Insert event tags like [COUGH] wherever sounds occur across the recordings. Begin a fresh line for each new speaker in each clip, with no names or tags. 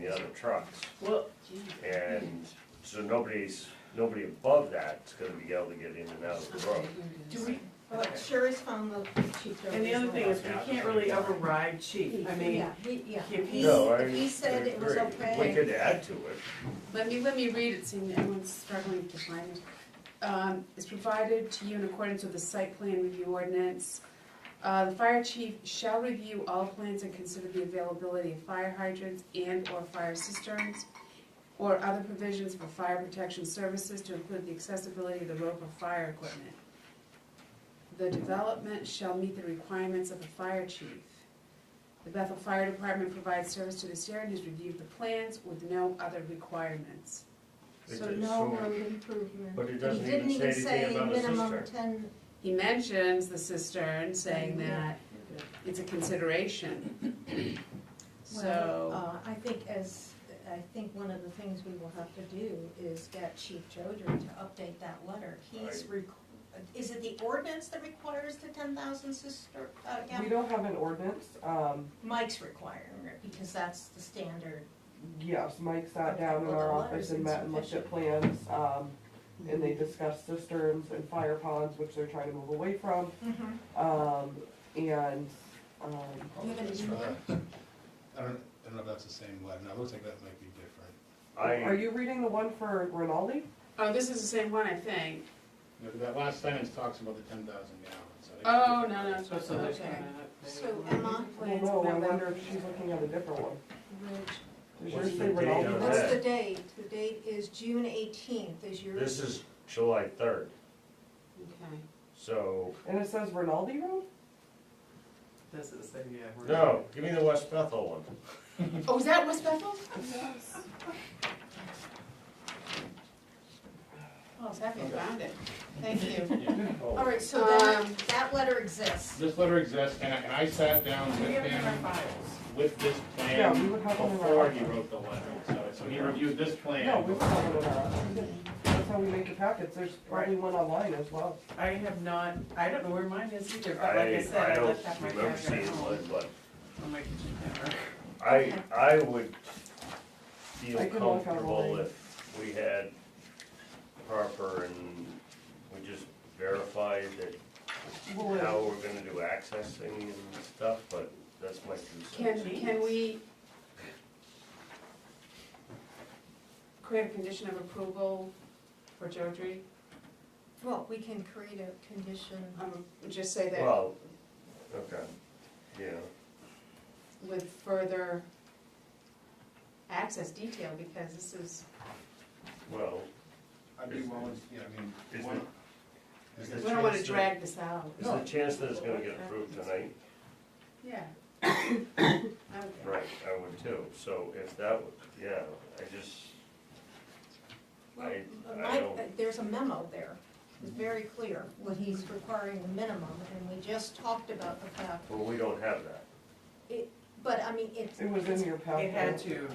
the other trucks.
Well,
And so nobody's, nobody above that's gonna be able to get in and out of the road.
do we,
Well, Sherry's found the chief.
and the other thing is, we can't really override chief, I mean,
Yeah, he, yeah.
if he,
No, I
He said it was
agree.
okay.
We could add to it.
Let me, let me read it, seeing that everyone's struggling to find it. Um, It's provided to you in accordance with the site plan review ordinance. Uh, The fire chief shall review all plans and consider the availability of fire hydrants and/or fire cisterns or other provisions for fire protection services to include the accessibility of the rope of fire equipment. The development shall meet the requirements of the fire chief. The Bethel Fire Department provides service to this area and has reviewed the plans with no other requirements.
It
So
is
no
sort of-
road improvement.
But it
But he
doesn't
didn't
even say
even
anything
say
about a
minimum
cistern.
ten,
He mentions the cistern, saying that it's a consideration. So,
well, uh, I think as, I think one of the things we will have to do is get Chief Joder to update that letter. He's, requ- is it the ordinance that requires the ten thousand sister, uh,
We
gallon?
don't have an ordinance, um,
Mike's requiring it, because that's the standard.
yes, Mike sat
Okay,
down in
well, the
our
letter's
office and met and looked at plans, um, and they discussed cisterns and fire ponds, which they're trying to move away from,
Mm-hmm.
um, and, um,
[LAUGHS] I don't, I don't know if that's the same one, no, it looks like that might be different.
are
I,
you reading the one for Rinaldi?
oh, this is the same one, I think.
No, but That last sentence talks about the ten thousand gallons. so I think-
Oh, no, no, it's
so, so there's
okay.
kinda-
So Emma,
Well,
Plans
no, I
about-
wonder if she's looking at a different one.
Rich,
Does
What's
yours
the
say
date
Rinaldi?
on
what's
that?
the date? The date is June eighteenth, is your.
this is July third,
Okay.
so,
And it says Rinaldi Road?
This is, so, yeah. we're-
no, give me the West Bethel one.
Oh, is that West Bethel?
Oh,
I
that-
haven't found it. Thank you.
Yeah.
[LAUGHS] All right, so that,
Um,
that letter exists.
This letter exists, and I, and I sat down
We
with
have it in our
him,
files.
with this
Yeah, we
plan
would have one in our
before he
office.
wrote the letter, so, so he reviewed this plan.
No, we would have one in our office. That's how we make the packets, there's probably one online as well.
I have not, I don't know where mine is either, but like I
I, I
said, I
don't
left half my
remember
packet at
seeing one,
home
but
on my kitchen counter.
I, I would feel
I can walk out
comfortable
all
if we had proper and we just verified that
Well,
how we're gonna do accessing and stuff, but that's my two
Can,
cents.
can we create a condition of approval for Jodry?
Well, we can create a condition.
Um, Just say that
Well, okay, yeah,
with further access detail, because this is,
well,
I'd be willing, yeah, I mean.
Is
one-
it- is
we
it-
don't wanna drag this out.
is the chance that it's gonna get approved tonight?
Yeah. Okay.
Right, I would too, so if that, would yeah, I just, I, I
My- uh,
don't,
There's a memo there, it's very clear, what he's requiring the minimum, and we just talked about the fact,
well, we don't have that.
but I mean, it,
It was in your packet.
It had to,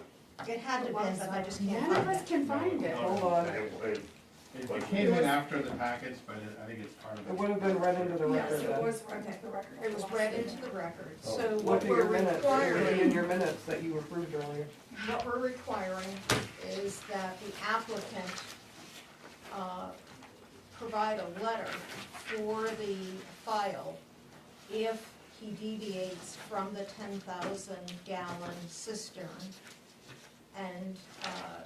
it had to be, but I just can't
None of
find
us
it.
can find it.
Hold on,
It- it-
It it came in after the packets, but it- I think it's part of the.
it would have been read into the record then.
It was read into the record, so
Oh.
Look
what
at
we're
your minutes, it would be in
requiring,
your minutes that you approved earlier.
what we're requiring is that the applicant, uh, provide a letter for the file if he deviates from the ten thousand gallon cistern. And, uh,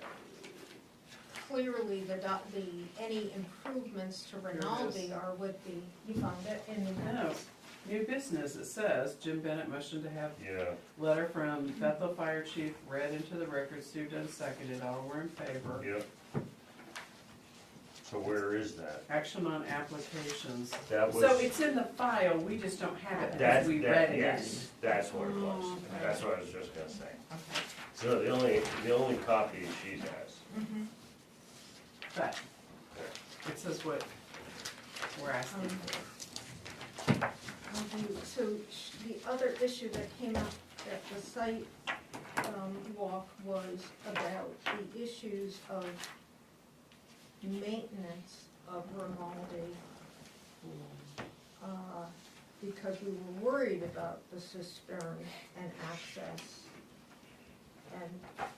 clearly the doc, the, any improvements to Rinaldi are with the, you found it in the
no,
notes?
new business, it says, Jim Bennett motioned to have
Yeah,
letter from Bethel Fire Chief read into the record, Sue Dunn seconded, all were in favor.
yep. So where is that?
Action on applications.
That
So
was,
it's in the file, we just don't have it because
that's,
we read
that,
it. Mm,
yes, that's what it was, that's what I was just gonna say. So the only, the only copy she has.
But it says what we're asking
Um,
for.
Um, So sh- the other issue that came up at the site um, walk was about the issues of maintenance of Grimaldi. uh, Because we were worried about the cistern and access. And